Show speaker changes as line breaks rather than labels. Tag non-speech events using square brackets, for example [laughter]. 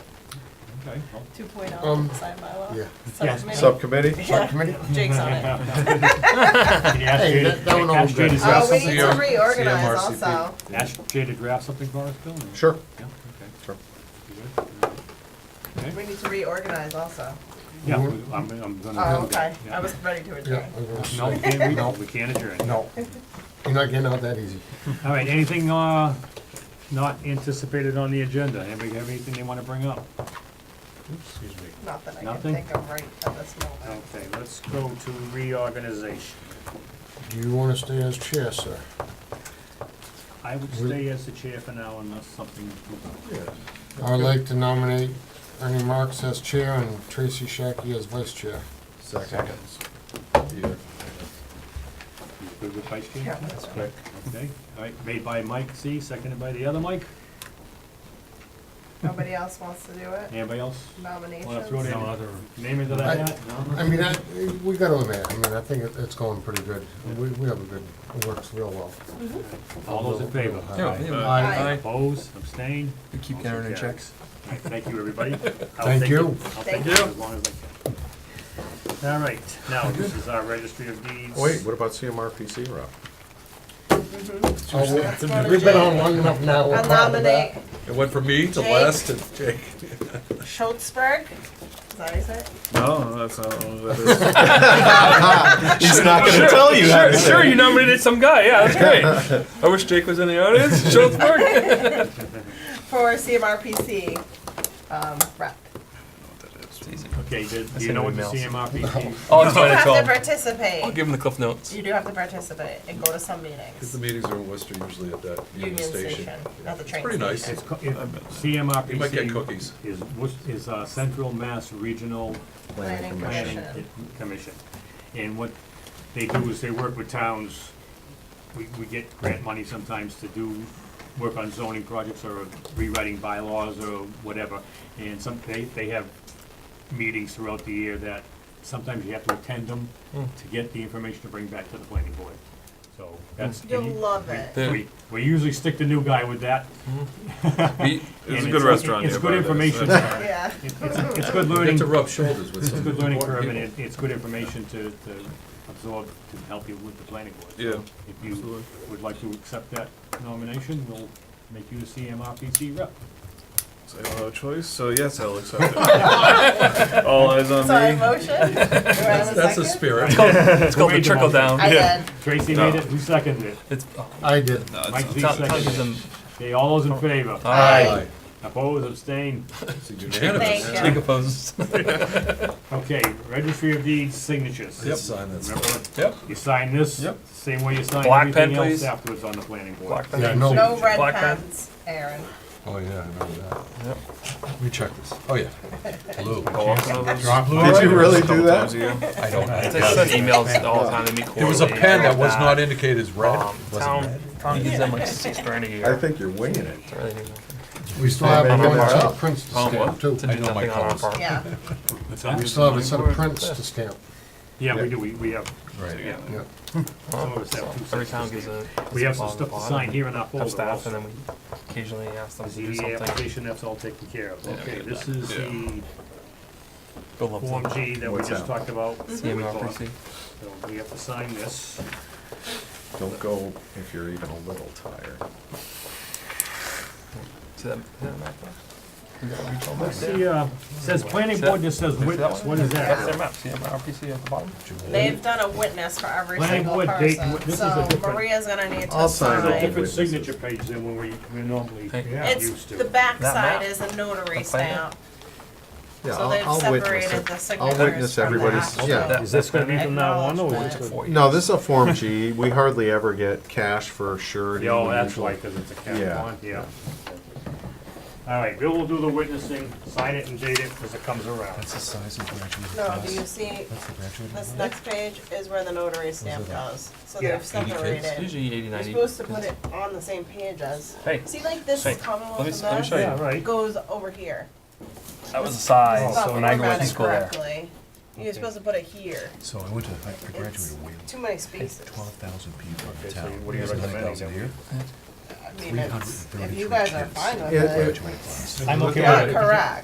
Okay, well,
two point oh,
Um,
sign bylaw.
yeah.
Subcommittee.
Subcommittee?
Subcommittee?
Jake's on it. Uh, [laughs]
Can you ask
Hey,
Jay
that- that one
to, ask
all
Jay to
good.
Oh,
draft
we
something?
need to
CM-
reorganize
CMRCP.
also.
Ask Jay to draft something for us, Bill? or-
Sure.
Yeah, okay.
Sure.
You good? All right.
We
Okay.
need to reorganize also.
Yeah, we- I'm, I'm gonna.
Oh,
do
okay.
that,
I
yeah.
was ready to
Mm-hmm. Yeah,
adjourn.
I'm gonna
No,
say,
we can't, we don't, we can't adjourn.
no, you're not getting out that easy.
All right, anything, uh, not anticipated on the agenda? Anybody have anything they wanna bring up? Oops, Excuse me.
Not that I can
Nothing?
think of right at this moment.
Okay, let's go to reorganization.
Do you wanna stay as chair, sir?
I would stay as the chair for now unless something.
Yes. I would like to nominate Ernie Marks as chair and Tracy Shackey as vice chair.
Seconds.
You Good with vice chair?
Yeah, that's right.
Okay, all right, made by Mike C, seconded by the other Mike.
Nobody else wants to do it?
Anybody else wanna throw
Nominations?
their name into
I-
that hat? No?
I mean, I, we got on that, I mean, I think it- it's going pretty good. We, we have a good, it works real well.
Mm-hmm.
All those in favor?
Yeah, yeah.
Aye.
Oppose, abstain?
uh, We keep counting our checks.
All right, Thank you, everybody. I'll
Thank
take
you.
it. I'll take
Thank
it
you.
as long as I can. All right, now, this is our registry of deeds.
Wait, what about CMRPC, Rob?
what
Oh, We've been on long enough now. we're
I
proud of that.
nominate
It went from me to
Jake.
Les to Jake. [laughs]
Schultzberg. Is that how you say it?
No, that's not what that
He's not gonna tell you
is. sure, sure, you nominated some guy. Yeah,
[laughs]
that's great. I wish Jake was in the audience. [laughs] Schultzberg.
For CMRPC, um, rep.
Okay, do do you know what the CMRPC?
I'll just
You
find a
have to
call.
participate.
I'll give him the cliff notes.
You do have to participate and go to some meetings.
The meetings are in Worcester usually at that
Union
Union
Station,
Station.
not the train
Pretty nice.
station.
It's co- it- CMRPC.
You might get
[laughs]
cookies.
Is, Worc- is uh, Central Mass Regional
Planning
Planning
Commission.
Commission. And what they do is they work with towns, we, we get grant money sometimes to do work on zoning projects or rewriting bylaws or whatever. And some, they, they have meetings throughout the year that sometimes you have to attend them to get the information to bring back to the planning board. So that's.
You'll love it.
Yeah,
We, we usually stick the new guy with that. and
we- It's a good restaurant.
It's
here,
good
by the way, so
information. [laughs]
[laughs] Yeah.
It's, it's, it's good
You get
learning,
to
it's
rub shoulders with some
good learning
important
curve, and
people.
it, it's good information to, to absorb, to help you with the planning board.
Yeah.
If you would like to accept that nomination, we'll make you the CMRPC rep.
So I don't have a uh, choice. So yes,
[laughs]
I'll accept it. All eyes on
Sorry,
me.
motion? Do
[laughs]
I have a
That's
second?
a spirit.
It's called the
Read them
trickle
all.
down.
I did.
Tracy
No.
made it, who seconded it?
It's oh,
I did.
Mike Z
Tom- Tom gives
seconded
them-
it. Okay, all those in favor?
uh,
Aye.
Oppose, abstain?
It's unanimous.
Thank you.
Jake opposes.
Okay, registry of deeds signatures.
Let's sign this.
Remember,
[laughs] Yep.
you sign this,
Yep.
same way you sign
Black pen,
everything else
please.
afterwards on the planning board.
Black
Yeah,
pen.
no.
No red
Black pen.
pens, Aaron.
Oh, yeah, I remember that. Let me check this. Oh,
[laughs]
yeah. Blue.
Did
do
that?
I don't.
I
know.
sent emails all the time to me.
There was a pen that was not indicated as red.
Um,
Was it red?
town, town gives them like six grand a year.
think you're winging it.
It's really new.
We still have
Yeah,
another
yeah.
set of prints to
Oh,
stamp
what?
too.
To do
know my
nothing on our
calls.
part.
Yeah.
We still have a set of prints to stamp,
Yeah, we do, we, we have,
Right.
yeah.
some of us have two
Every
sets.
town gives a.
We have some
on the
stuff to
bottom.
sign here in our folder
Have staff
also.
and then we occasionally ask them to do
ZBA
something.
application, that's all taken care of. Okay,
get
this is the
Bill loves
Form
them.
G that we
What's
just
that?
talked about.
Mm-hmm.
CMRPC.
So we have to sign this.
Don't go if you're even a little tired.
See that, see that map there?
Let's see, uh, says planning board, just says witness, what is
That's
that?
their map, CMRPC at the bottom.
They've done a witness for every
Planning
single
board date,
person,
this is a
so
different-
Maria's gonna need to
I'll sign
There's a
sign.
different
Witnesses.
signature page than when we, we normally
Thank you.
It's,
used to.
the back
That
side
map.
is a notary
The plan.
stamp,
Yeah,
so
I'll,
they've
I'll witness
separated
it.
the signatures
I'll witness
from
everybody's,
that.
yeah.
Is this gonna be from now on, or is
Acknowledge
this?
For you.
No, this is a Form G. We hardly ever get cash for surety.
Yeah, oh, that's
usually.
right, because it's a cap
Yeah.
one, yeah. All right, Bill will do the witnessing, sign it and date it as it comes around.
the size of graduating
No, do you see, this next page is where the notary stamp goes, so
Yeah.
they've separated.
Usually eighty,
You're
ninety.
supposed to put it on the same page as,
Hey,
see like this
Hey,
is
let me
Commonwealth
s- let me
of
show you.
Mass,
Yeah, right.
it goes over here.
that was a size,
It's
Oh, so
not
when I go to
formatted
school there.
correctly. You're supposed to put it here,
So I went to, I I
it's
graduated with
too many spaces.
twelve thousand people in
Okay, so
town.
what are you
There's nine
recommending
thousand
then?
here.
I mean, it's, if you
333
guys are
kids.
fine with
It-
it,
Graduating class.
I'm okay
you're correct.